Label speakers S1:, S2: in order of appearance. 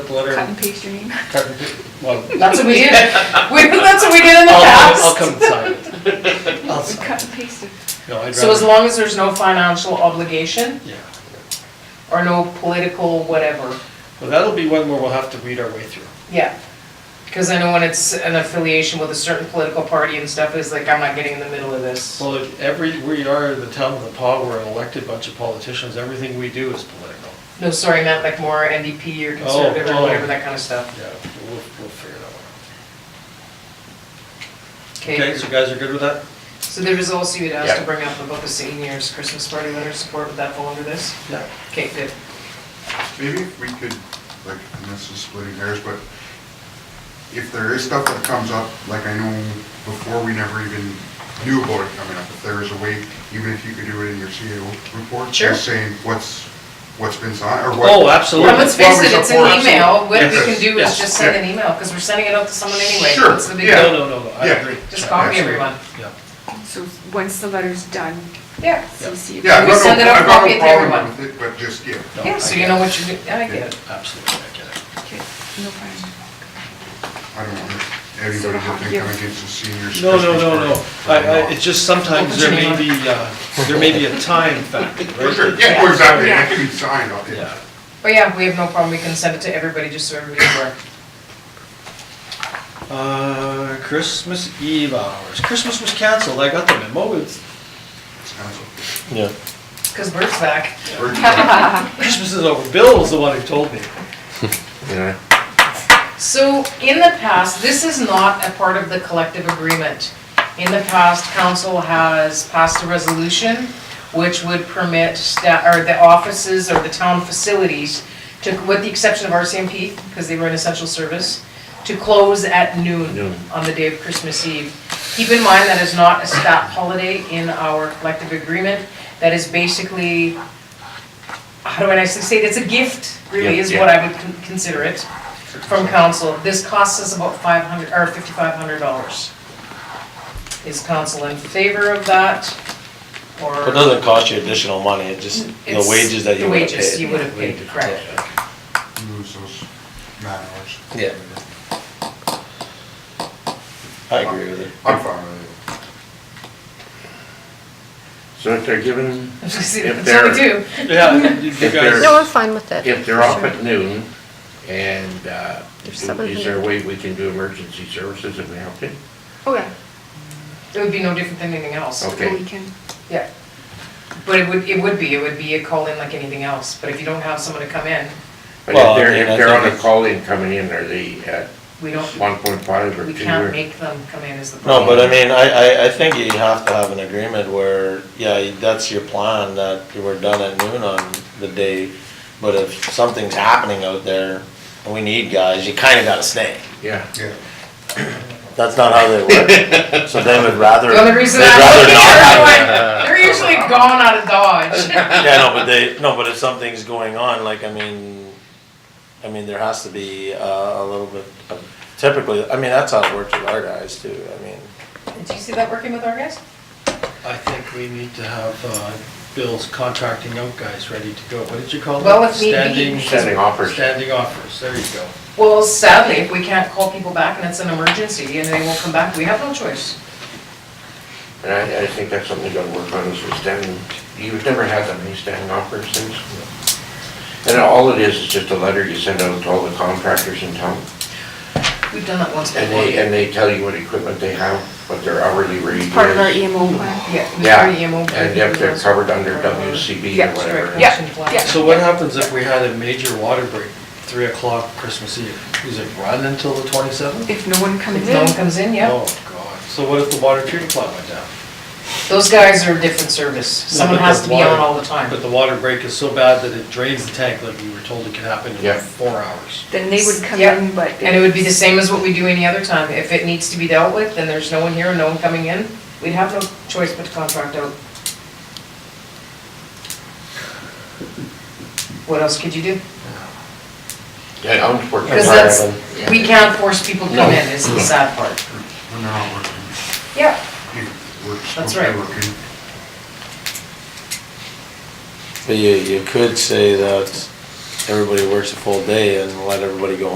S1: letter,
S2: Cut and paste your name.
S1: cut and pa- well,
S3: That's what we did, we, that's what we did in the
S1: I'll, I'll
S3: past.
S1: come sign it. I'll sign
S2: Cut and paste it.
S1: it. No, I'd
S3: So as
S1: rather,
S3: long as there's no financial obligation
S1: yeah.
S3: or no political whatever,
S1: Well, that'll be one where we'll have to read our way through.
S3: yeah. Because I know when it's an affiliation with a certain political party and stuff, it's like, I'm not getting in the middle of this.
S1: Well, if every, we are the town of the paw, we're an elected bunch of politicians, everything we do is political.
S3: No, sorry, I meant like more NDP or conservative
S1: oh.
S3: or whatever, that kind of stuff.
S1: Yeah, we'll, we'll figure that one out.
S3: Okay,
S1: Okay, so you guys are good with that?
S3: so there was also, you'd asked
S1: Yeah.
S3: to bring up about the seniors Christmas party letter support, would that fall under this?
S1: Yeah.
S3: Okay, good.
S4: Maybe if we could, like, and this is splitting hairs, but if there is stuff that comes up, like I know before we never even knew about it coming up, if there is a way, even if you could do it in your CAO report,
S3: Sure.
S4: just saying what's, what's been signed, or what.
S1: Oh, absolutely.
S3: And let's face
S4: what was
S3: it, it's an
S4: reported.
S3: email, what we can
S4: Yes,
S3: do
S1: yes,
S3: is just send
S4: yeah.
S3: an email, because we're sending it out to someone anyway,
S4: Sure,
S3: what's the big
S4: yeah.
S3: deal?
S1: No, no, no, no, I
S4: Yeah.
S1: agree.
S3: Just copy
S4: Absolutely.
S3: everyone.
S1: Yeah.
S5: So once the letter's done,
S3: Yeah.
S5: CC. it.
S4: Yeah, I've
S3: We
S4: got
S3: send it
S4: no,
S3: out
S4: I've got
S3: copy
S4: no
S3: to
S4: problem
S3: everyone.
S4: with it, but just, yeah.
S1: No, I
S3: Yeah, so you
S1: get
S3: know
S1: it.
S3: what you're doing, I get it.
S1: Absolutely, I get it.
S5: Okay, no problem.
S4: I don't want anybody to think I'm against the seniors.
S1: No, no,
S4: Christmas
S1: no,
S4: party.
S1: no. I, I, it's just sometimes there may be, uh, there may be a time factor,
S4: For sure,
S1: right?
S4: yeah, well, exactly,
S5: Yeah.
S4: it can be signed, I'll-
S1: Yeah.
S3: But yeah, we have no problem, we can send it to everybody, just so everybody's aware.
S1: Uh, Christmas Eve hours. Christmas was canceled. I got the memo. It's,
S4: it's canceled.
S6: Yeah,
S3: Because Bert's back.
S4: Or-
S1: Christmas is over. Bill was the one who told me.
S6: yeah.
S3: So in the past, this is not a part of the collective agreement. In the past, council has passed a resolution which would permit sta, or the offices or the town facilities to, with the exception of RCMP, because they were an essential service, to close at noon
S6: Noon.
S3: on the day of Christmas Eve. Keep in mind that is not a staff holiday in our collective agreement. That is basically, how do I nicely say it? It's a gift, really,
S6: Yeah,
S3: is
S6: yeah.
S3: what I would con- consider it from council. This costs us about five hundred, or fifty-five hundred dollars. Is council in favor of that, or?
S6: But it doesn't cost you additional money, it just, the
S3: It's
S6: wages that you would have
S3: The wages you
S6: paid.
S3: would have paid, correct.
S4: You lose those man hours.
S6: Yeah. I agree with it.
S4: I'm fine with it.
S7: So if they're given,
S3: That's
S7: If
S3: what we do.
S1: Yeah, you
S7: If
S1: guys.
S7: there's-
S8: No, I'm fine with it.
S7: if they're off at noon, and uh,
S8: There's
S7: is
S8: seven
S7: there a way we can do emergency services if we have to?
S8: Oh, yeah,
S3: It would be no different than anything else.
S7: Okay.
S5: The weekend.
S3: Yeah. But it would, it would be, it would be a call-in like anything else, but if you don't have someone to come in,
S7: But
S6: Well,
S7: if
S6: I
S7: they're,
S6: mean, I
S7: if they're
S6: think
S7: on a
S6: it's-
S7: call-in coming in, are they at
S3: we don't,
S7: one point five or
S3: we
S7: two?
S3: can't
S7: or-
S3: make them come in is the
S6: No,
S3: problem.
S6: but I mean, I, I, I think you have to have an agreement where, yeah, that's your plan, that you were done at noon on the day. But if something's happening out there, and we need guys, you kinda gotta stay.
S7: Yeah.
S4: Yeah.
S6: That's not how they work. So they would rather.
S3: The only reason
S6: they'd
S3: I'm
S6: rather
S3: looking
S6: not
S3: at
S6: have-
S3: everyone, they're usually gone out of Dodge.
S6: Yeah, no, but they, no, but if something's going on, like, I mean, I mean, there has to be uh, a little bit of, typically, I mean, that's how it works with our guys too, I mean.
S3: Did you see that working with our guys?
S1: I think we need to have, uh, Bill's contracting out guys ready to go. What did you call them?
S3: Well, if need be.
S1: Standing-
S7: Standing offers.
S1: Standing offers. There you go.
S3: Well, sadly, if we can't call people back and it's an emergency and they won't come back, we have no choice.
S7: And I, I think that's something you gotta work on is with standing, you've never had that many standing offers since. And all it is, is just a letter you send out to all the contractors in town.
S3: We've done that once before.
S7: And they, and they tell you what equipment they have, what their hourly rate is.
S5: Part of our
S8: e-
S3: Oh.
S5: EMO plan.
S3: Yeah, we
S7: Yeah,
S3: already emo.
S7: and if they're covered under WCB
S5: Yeah,
S7: or whatever.
S3: Direct action plan.
S5: yeah.
S1: So what happens if we had a major water break, three o'clock Christmas Eve? Is it run until the twenty-seventh?
S5: If no one comes
S3: If no
S5: in,
S3: one comes in, yeah.
S1: Oh, God. So what if the water treatment plant went down?
S3: Those guys are a different service. Someone
S1: but
S3: has
S1: the
S3: to be on
S1: water-
S3: all the time.
S1: But the water break is so bad that it drains the tank like we were told it could happen
S7: Yeah.
S1: in four hours.
S5: then they would come
S3: Yeah.
S5: in, but.
S3: And it would be the same as what we do any other time. If it needs to be dealt with, then there's no one here, no one coming in. We'd have no choice but to contract out. What else could you do?
S7: Yeah, I'm working.
S3: Because
S7: hard
S3: that's,
S7: on them.
S3: we can't force people to come
S7: No.
S3: in, is the sad part.
S4: When they're not working,
S3: Yeah.
S4: you- we're supposed
S3: That's
S4: to be
S3: right.
S4: working.
S6: But you, you could say that everybody works a full day and let everybody go